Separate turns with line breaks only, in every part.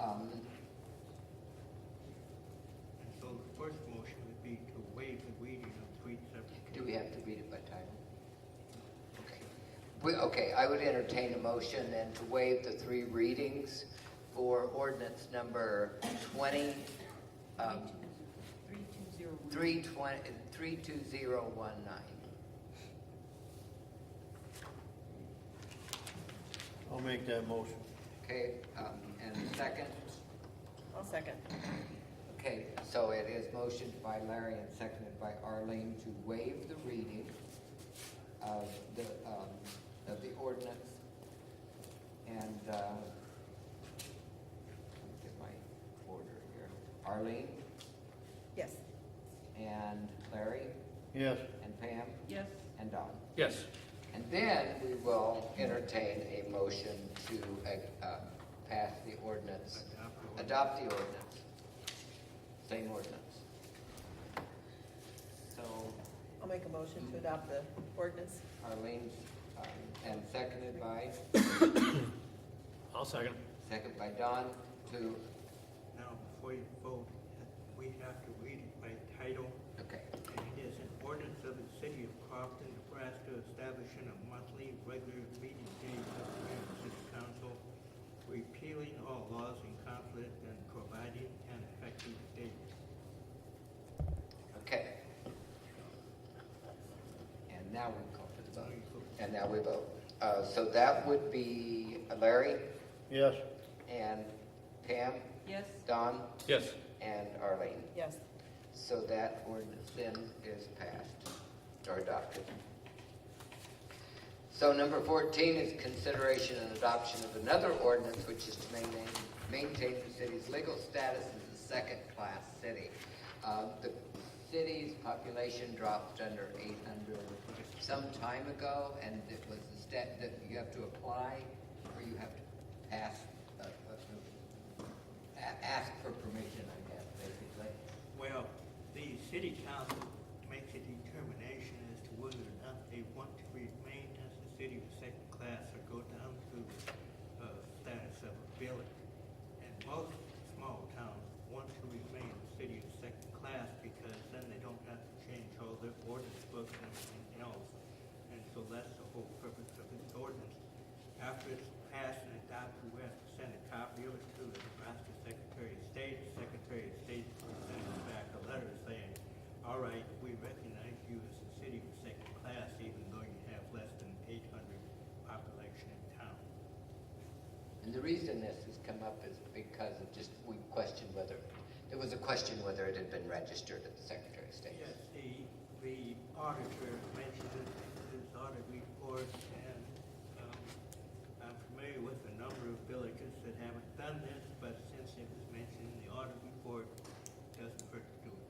Um,
And so the first motion would be to waive the reading of three separate.
Do we have to read it by title? Okay. We- Okay, I would entertain a motion then to waive the three readings for ordinance number 20, um,
3201.
320 32019.
I'll make that motion.
Okay, um, and second?
I'll second.
Okay, so it is motioned by Larry and seconded by Arlene to waive the reading of the, um, of the ordinance. And, uh, let me get my order here. Arlene
Yes.
and Larry
Yes,
and Pam
Yes.
and Don.
Yes.
And then we will entertain a motion to, uh, uh, pass the ordinance,
Adopt the
adopt the ordinance, same ordinance. So
I'll make a motion to adopt the ordinance.
Arlene's, um, and seconded by,
I'll second.
second by Don to,
Now, before you vote, we have to read it by title.
okay,
And it is an ordinance of the city of Crofton, Nebraska, establishing a monthly regular meeting date of the Grand City Council, repealing all laws in conflict and providing an effective date.
okay. And now we call for the
Now
vote.
you vote.
And now we vote. Uh, so that would be Larry
yes,
and Pam,
Yes.
Don
Yes.
and Arlene.
Yes.
So that ordinance then is passed or adopted. So number fourteen is consideration and adoption of another ordinance, which is to maintain, maintain the city's legal status as a second-class city. Uh, the city's population dropped under eight hundred some time ago, and it was a step that you have to apply, or you have to pass, uh, uh, a- ask for permission, I guess, basically.
Well, the city council makes a determination as to whether or not they want to remain as a city of second class or go down to uh, status of a village. And most small towns want to remain a city of second class because then they don't have to change all their ordinance books and everything else. And so that's the whole purpose of this ordinance. After it's passed and adopted, we have to send a copy of it to the Nebraska Secretary of State. The Secretary of State sends us back a letter saying, all right, we recognize you as a city of second class, even though you have less than eight hundred population in town.
And the reason this has come up is because of just, we questioned whether, there was a question whether it had been registered at the Secretary of State.
Yes, the, the auditor mentioned it in his audit report, and, um, I'm familiar with a number of villages that haven't done this, but since it was mentioned in the audit report, it doesn't hurt to do it.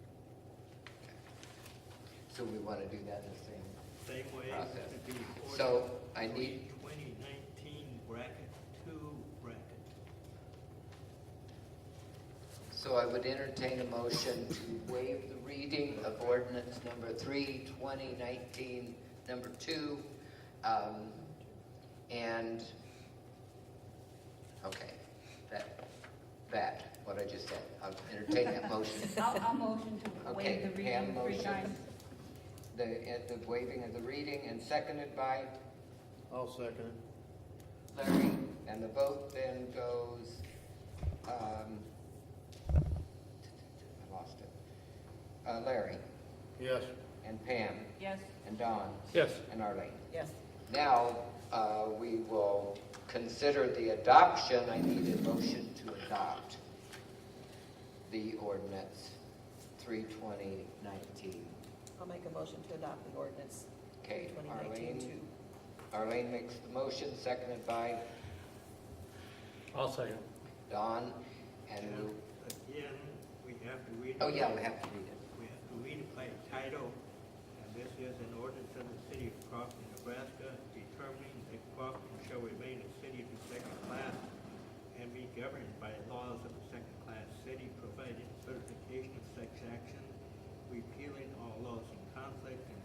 So we want to do that the same.
Same way
Process.
to be ordered.
So, I need-
Twenty nineteen bracket two bracket.
So I would entertain a motion to waive the reading of ordinance number three, twenty nineteen, number two. um, And, okay, that, that, what I just said. I'll entertain that motion.
I'll, I'll motion to waive
Okay,
the
Pam
reading three
motion.
times.
The, uh, the waiving of the reading and seconded by
I'll second it.
Larry. And the vote then goes, um, I lost it. Uh, Larry
Yes,
and Pam
Yes,
and Don
Yes.
and Arlene.
Yes.
Now, uh, we will consider the adoption. I need a motion to adopt the ordinance three twenty nineteen.
I'll make a motion to adopt the ordinance
Okay,
2019
Arlene? Arlene makes the motion, seconded by
I'll second.
Don, and,
And
we'll-
again, we have to read. it-
oh yeah, we have to read it.
We have to read it by title, and this is an ordinance of the city of Crofton, Nebraska, determining that Crofton shall remain a city of the second class and be governed by laws of the second-class city, providing certification of such action, repealing all laws in conflict and